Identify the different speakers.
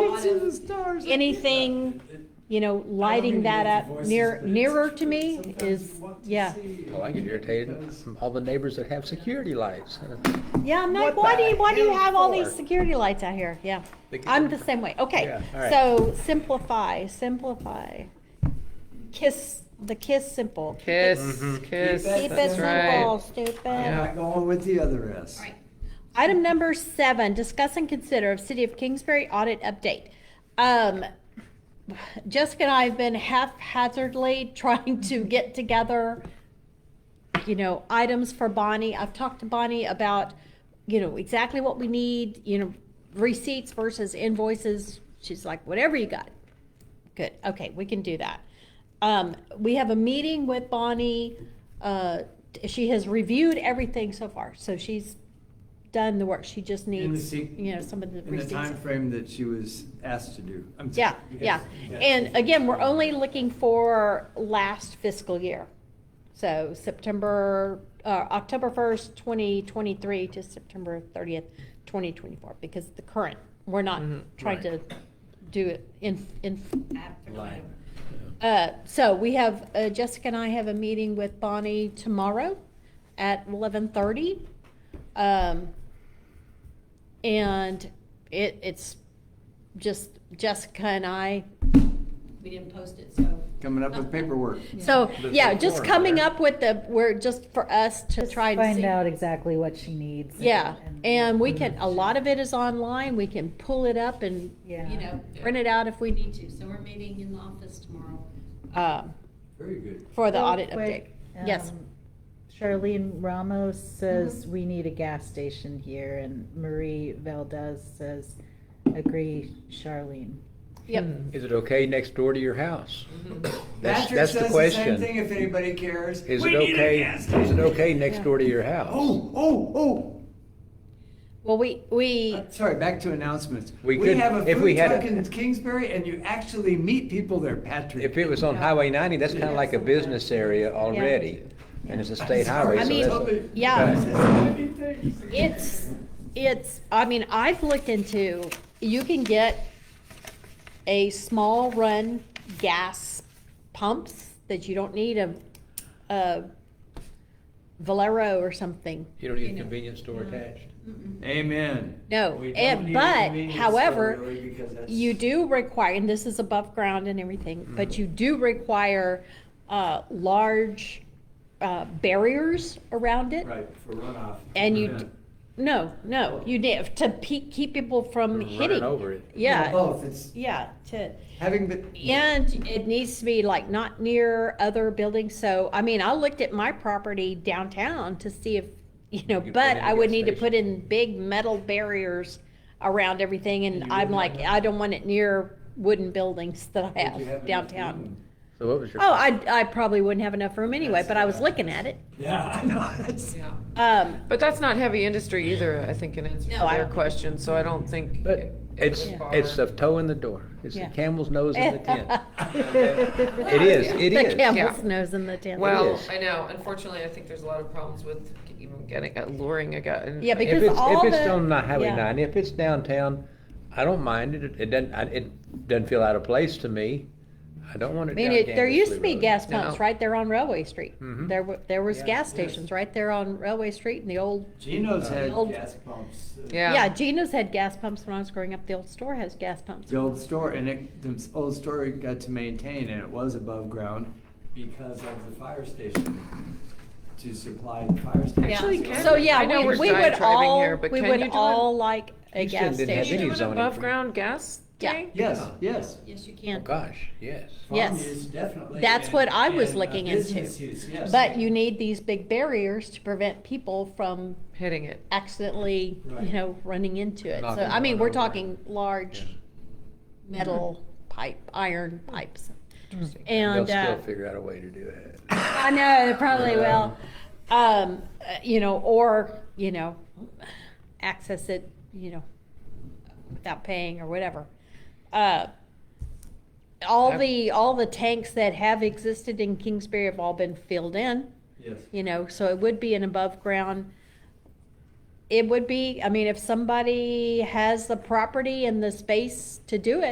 Speaker 1: lot of,
Speaker 2: stars.
Speaker 3: anything, you know, lighting that up near, nearer to me is, yeah.
Speaker 4: Well, Oh, I get irritated from all the neighbors that have security lights.
Speaker 3: Yeah, I'm like,
Speaker 4: What
Speaker 3: why do
Speaker 4: the
Speaker 3: you, why do you
Speaker 4: hell
Speaker 3: have all these
Speaker 4: for?
Speaker 3: security lights out here? Yeah.
Speaker 4: They can-
Speaker 3: I'm the same way. Okay,
Speaker 4: Yeah, all right.
Speaker 3: so simplify, simplify. Kiss, the kiss simple. Keep it-
Speaker 5: Kiss,
Speaker 4: Mhm.
Speaker 5: kiss.
Speaker 3: Keep it
Speaker 5: that's
Speaker 3: simple,
Speaker 5: right.
Speaker 3: stupid.
Speaker 5: Yeah.
Speaker 2: I'm going with the other S.
Speaker 1: all right,
Speaker 3: Item number seven, discuss and consider of City of Kingsbury audit update. Um, Jessica and I have been haphazardly trying to get together, you know, items for Bonnie. I've talked to Bonnie about, you know, exactly what we need, you know, receipts versus invoices. She's like, whatever you got. Good, okay, we can do that. Um, we have a meeting with Bonnie. Uh, she has reviewed everything so far, so she's done the work. She just
Speaker 2: In the
Speaker 3: needs,
Speaker 2: se-
Speaker 3: you know, some of the
Speaker 2: In the
Speaker 3: receipts.
Speaker 2: time frame that she was asked to do. I'm
Speaker 3: Yeah,
Speaker 2: sorry.
Speaker 3: yeah. And again, we're only looking for last fiscal year. So September, uh, October first, twenty twenty-three to September thirtieth, twenty twenty-four, because the current, we're not
Speaker 5: Mhm,
Speaker 3: trying to do it in, in,
Speaker 1: after the
Speaker 2: Line.
Speaker 3: uh, so we have, uh, Jessica and I have a meeting with Bonnie tomorrow at eleven thirty. Um, and it, it's just Jessica and I
Speaker 1: we didn't post it, so.
Speaker 2: Coming up with paperwork.
Speaker 3: So,
Speaker 4: There's
Speaker 3: yeah,
Speaker 4: no
Speaker 3: just
Speaker 4: form
Speaker 3: coming
Speaker 4: there.
Speaker 3: up with the, we're, just for us to try and
Speaker 6: Find
Speaker 3: see.
Speaker 6: out exactly what she needs.
Speaker 3: Yeah, and we can, a lot of it is online, we can pull it up and,
Speaker 6: Yeah.
Speaker 1: You know,
Speaker 3: print it out if
Speaker 1: we
Speaker 3: we,
Speaker 1: need to, so we're meeting in the office tomorrow.
Speaker 3: um,
Speaker 2: Very good.
Speaker 3: for the
Speaker 6: Real
Speaker 3: audit update.
Speaker 6: quick,
Speaker 3: Yes. Mm-hmm.
Speaker 6: um, Charlene Ramos says we need a gas station here and Marie Valdez says, agree, Charlene.
Speaker 3: Yep,
Speaker 4: Is it okay next door to your house? That's,
Speaker 2: Patrick
Speaker 4: that's the
Speaker 2: says the same
Speaker 4: question.
Speaker 2: thing if anybody cares.
Speaker 4: Is
Speaker 2: We
Speaker 4: it
Speaker 2: need a
Speaker 4: okay,
Speaker 2: gas
Speaker 4: is
Speaker 2: station.
Speaker 4: it okay next
Speaker 3: Yeah.
Speaker 4: door to your house?
Speaker 2: Oh, oh, oh.
Speaker 3: well, we, we,
Speaker 2: Uh, Sorry, back to announcements.
Speaker 4: We could-
Speaker 2: have a
Speaker 4: if we
Speaker 2: food
Speaker 4: had a-
Speaker 2: truck in Kingsbury and you actually meet people there, Patrick.
Speaker 4: If it was on Highway ninety, that's kinda like a business area already, and it's a state highway,
Speaker 3: I
Speaker 4: so
Speaker 3: mean,
Speaker 4: that's.
Speaker 3: yeah.
Speaker 2: yeah.
Speaker 3: it's, it's, I mean, I've looked into, you can get a small run gas pumps that you don't need um, a, a Valero or something.
Speaker 4: You don't need a convenience store attached?
Speaker 2: Amen.
Speaker 3: No,
Speaker 2: We don't
Speaker 3: and,
Speaker 2: need
Speaker 3: but,
Speaker 2: convenience store,
Speaker 3: however,
Speaker 2: really, because that's-
Speaker 3: you do require, and this is above ground and everything, but
Speaker 4: Mm-hmm.
Speaker 3: you do require, uh, large, uh, barriers around it.
Speaker 2: Right, for runoff.
Speaker 3: And you,
Speaker 2: Yeah.
Speaker 3: d- no, no, you did, to pe- keep people from
Speaker 4: Running
Speaker 3: hitting.
Speaker 4: over it.
Speaker 3: Yeah,
Speaker 2: Both, it's
Speaker 3: yeah, to,
Speaker 2: having been.
Speaker 3: and it needs to be like not near other buildings, so, I mean, I looked at my property downtown to see if, you know,
Speaker 4: You could put
Speaker 3: but
Speaker 4: in a
Speaker 3: I would
Speaker 4: gas
Speaker 3: need to
Speaker 4: station.
Speaker 3: put in big metal barriers around everything,
Speaker 2: You
Speaker 3: and
Speaker 2: would
Speaker 3: I'm
Speaker 2: not
Speaker 3: like,
Speaker 2: have-
Speaker 3: I don't want it near wooden buildings that I
Speaker 2: Would you have
Speaker 3: have
Speaker 2: enough room?
Speaker 3: downtown.
Speaker 4: So what was your?
Speaker 3: Oh, I, I probably wouldn't have enough room anyway,
Speaker 2: That's
Speaker 3: but I was
Speaker 2: right.
Speaker 3: looking at it.
Speaker 2: Yeah, I know, that's.
Speaker 5: Yeah.
Speaker 3: Um,
Speaker 5: But that's not heavy industry either, I think, in answer
Speaker 3: No,
Speaker 5: to
Speaker 3: I
Speaker 5: their
Speaker 3: don't-
Speaker 5: question, so I don't think.
Speaker 4: But it's,
Speaker 5: Yeah.
Speaker 4: it's a toe in the door. It's the
Speaker 3: Yeah.
Speaker 4: camel's nose in the tent. It is, it
Speaker 3: The
Speaker 4: is.
Speaker 3: camel's nose in the tent.
Speaker 5: Well,
Speaker 4: is.
Speaker 5: I know, unfortunately, I think there's a lot of problems with even getting, uh, luring a guy. and-
Speaker 3: Yeah, because
Speaker 4: If it's,
Speaker 3: all
Speaker 4: if it's
Speaker 3: the-
Speaker 4: on the Highway
Speaker 3: yeah.
Speaker 4: ninety, if it's downtown, I don't mind it, it doesn't, I- it doesn't feel out of place to me. I don't want
Speaker 3: I
Speaker 4: it
Speaker 3: mean,
Speaker 4: down
Speaker 3: it, there
Speaker 4: Gandersley
Speaker 3: used to be
Speaker 4: Road.
Speaker 3: gas pumps
Speaker 5: No.
Speaker 3: right there on Railway Street.
Speaker 4: Mhm.
Speaker 3: There were, there was
Speaker 2: Yeah,
Speaker 3: gas
Speaker 2: yes.
Speaker 3: stations right there on Railway Street and the old,
Speaker 2: Gino's had
Speaker 3: Old-
Speaker 2: gas pumps. uh,
Speaker 5: Yeah.
Speaker 3: yeah, Gina's had gas pumps when I was growing up. The old store has gas pumps.
Speaker 2: The old store, and it, the old store got to maintain, and it was above ground because of the fire station to supply the fire station.
Speaker 3: Yeah.
Speaker 5: Actually, can-
Speaker 3: So, yeah,
Speaker 5: I know
Speaker 3: we,
Speaker 5: we're
Speaker 3: we would
Speaker 5: diatribing
Speaker 3: all,
Speaker 5: here, but
Speaker 3: we
Speaker 5: can you
Speaker 3: would
Speaker 5: do
Speaker 3: all like a
Speaker 4: Houston
Speaker 3: gas
Speaker 4: didn't have
Speaker 5: Can you
Speaker 3: station.
Speaker 4: any
Speaker 5: do an
Speaker 4: zoning for-
Speaker 5: above-ground gas
Speaker 3: Yeah.
Speaker 5: tank?
Speaker 2: Yes, yes.
Speaker 1: Yes, you
Speaker 4: Oh,
Speaker 1: can.
Speaker 4: gosh, yes.
Speaker 2: Farm
Speaker 3: Yes.
Speaker 2: use, definitely,
Speaker 3: That's
Speaker 2: and-
Speaker 3: what I was
Speaker 2: and, uh,
Speaker 3: looking into.
Speaker 2: business use, yes.
Speaker 3: But you need these big barriers to prevent people from
Speaker 5: Hitting it.
Speaker 3: accidentally,
Speaker 2: Right.
Speaker 3: you know, running into it. So,
Speaker 4: Knocking
Speaker 3: I mean,
Speaker 4: one
Speaker 3: we're
Speaker 4: over.
Speaker 3: talking large metal pipe, iron pipes. And,
Speaker 4: They'll
Speaker 3: uh,
Speaker 4: still figure out a way to do it.
Speaker 3: I know, they probably
Speaker 4: Yeah.
Speaker 3: will. Um, uh, you know, or, you know, access it, you know, without paying or whatever. Uh, all the, all the tanks that have existed in Kingsbury have all been filled in,
Speaker 2: Yes.
Speaker 3: you know, so it would be an above ground. It would be, I mean, if somebody has the property and the space to do it,